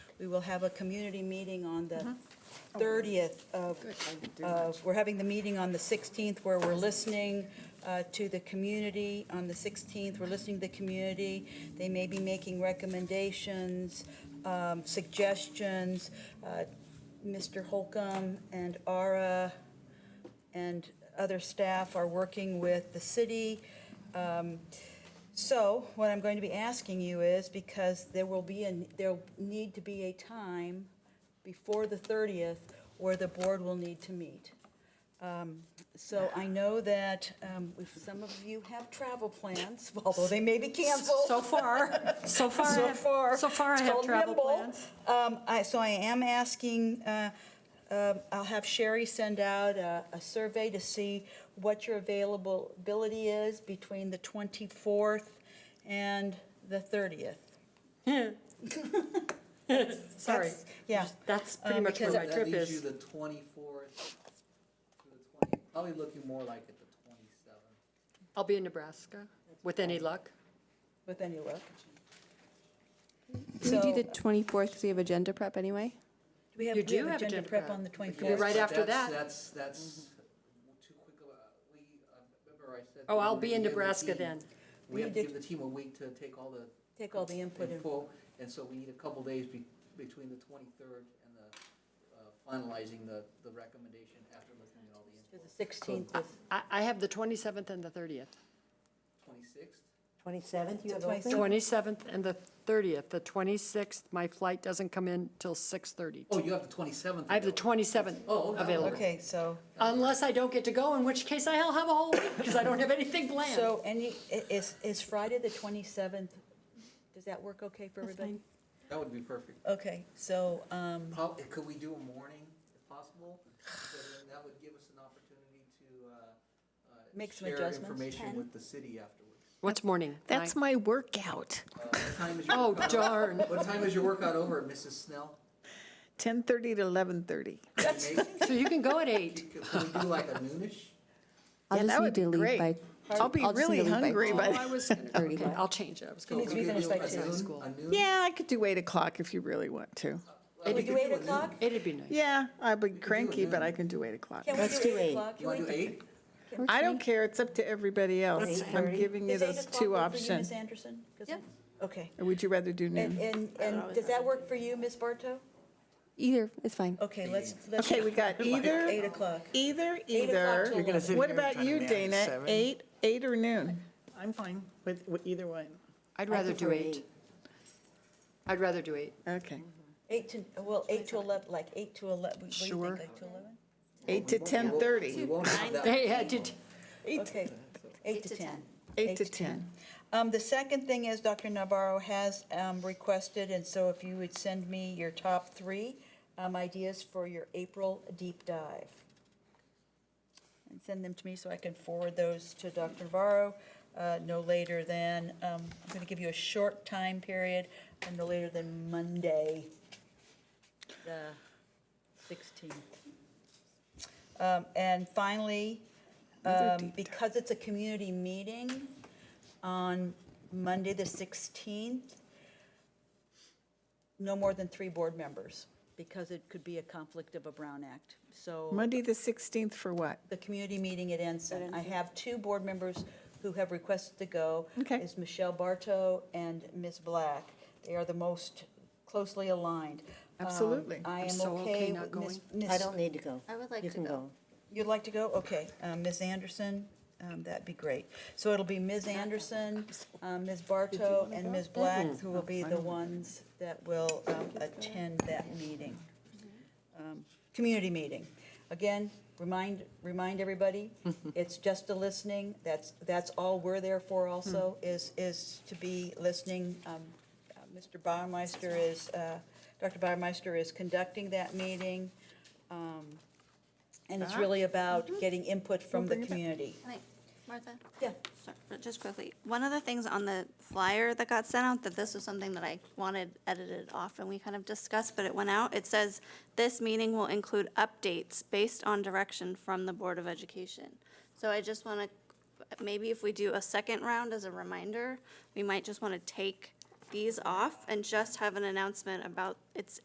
We will have a community meeting on the 30th of, of- we're having the meeting on the 16th where we're listening uh, to the community. On the 16th, we're listening to the community. They may be making recommendations, um, suggestions. Uh, Mr. Holcomb and Ara and other staff are working with the city. Um, So what I'm going to be asking you is, because there will be, an- there'll need to be a time before the 30th where the board will need to meet. Um, So I know that um, if some of you have travel plans, although they may be canceled. So far, so far, I So have- far. so far I it's have called travel nimble. plans. Um, I, so I am asking, uh, um, I'll have Sherry send out a, a survey to see what your availability is between the 24th and the 30th. Sorry. That's- Yeah, That's Uh, pretty much where because my it- trip That leaves you is. the twenty-fourth to the twenty, probably looking more like at the twenty-seventh. I'll be in Nebraska, with any luck. with any luck. Do we So- do the 24th because we have agenda prep anyway? Do we have, You we do have agenda prep on the You're 24th? right after that. Mm-hmm. That's, that's too quick of a, we, I remember I said. Oh, I'll we be in give the Nebraska team- then. We have to You did- give the team a week to take all the Take all the input in. info, and so we need a couple days be, between the twenty-third and the uh, finalizing the, the recommendation after looking at all the info. The 16th is, I, I have the 27th and the 30th. Twenty-sixth? 27th, you have The open? 27th. 27th and the 30th. The 26th, my flight doesn't come in till 6:30. Oh, you have the twenty-seventh. I have the 27th Oh, okay. available. okay, so, Unless I don't get to go, in which case I'll have a whole week, because I don't have anything planned. so any, i- is, is Friday the 27th, does that work okay for everybody? That would be perfect. Okay, so, um, Prob- Could we do a morning if possible? So then That would give us an opportunity to, uh, uh. Make some Share adjustments. information with the city afterwards. What's morning? That's Nine? my workout. Uh, What time is your? Oh, workout- darn. What time is your workout over at Mrs. Snell? 10:30 to 11:30. That's. So you can go at 8. Could we do like a noonish? I'll Yeah, just need that would to be leave great. by. I'll be just need really to leave by hungry, Oh, but, I was, okay, I'll change it. I was going. needs to be We could finished do by a two. noon- School. A noon? yeah, I could do 8 o'clock if you really want to. Well, we do could eight a noon. o'clock? It'd be nice. Yeah, I'd be do cranky, but noon. I can do 8 o'clock. can we Let's do do 8 eight. o'clock? You want to do Can we- eight? I don't care, it's up to everybody else. I'm 8:30. giving you Is eight those o'clock two work for you, Ms. options. Anderson? 'Cause Yeah. I'm- Okay. Or would you rather do And, noon? and, and does that work for you, Ms. Barto? Either, it's fine. Okay, let's, let's. Okay, we got Eight either, o'clock. either, Eight o'clock either. till eleven. What about you, Dana? 8, 8 or noon? I'm fine with, with either one. I'd rather do prefer 8. eight. I'd rather do 8. Okay. Eight to, well, eight to 11, like eight to 11, what do you Sure. think, like to 11? 8 to We 10:30. won't have that. They had to. Okay, eight to 10. 8 to 10. Um, The second thing is Dr. Navarro has um, requested, and so if you would send me your top three um, ideas for your April deep dive. And send them to me so I can forward those to Dr. Navarro uh, no later than, um, I'm going to give you a short time period, and no later than Monday, the 16th. Um, And finally, um, because it's a community meeting on Monday, the 16th, no more than three board members, because it could be a conflict of a Brown Act. So Monday, the 16th for what? the community meeting at Ensign, I have two board members who have requested to go. Okay. Is Michelle Bartow and Ms. Black. They are the most closely aligned. Um, Absolutely. I I'm am so okay okay not with Ms. I Ms. don't need to go. I would like You to can go. You'd like to go? Okay, um, Ms. Anderson, um, that'd be great. So it'll be Ms. Anderson, um, Ms. Bartow, and Ms. Black, who will be the ones that will um, attend that meeting, Um, community meeting. Again, remind, remind everybody, it's just a listening, that's, that's all we're there for also, is, is to be listening. Um, uh, Mr. Baumeister is, uh, Dr. Baumeister is conducting that meeting. And it's really about getting input from the community. I think- Martha? Yeah. Sorry, but Just quickly, one of the things on the flyer that got sent out, that this was something that I wanted edited off and we kind of discussed, but it went out. It says, this meeting will include updates based on direction from the Board of Education. So I just want to, maybe if we do a second round as a reminder, we might just want to take these off and just have an announcement about it's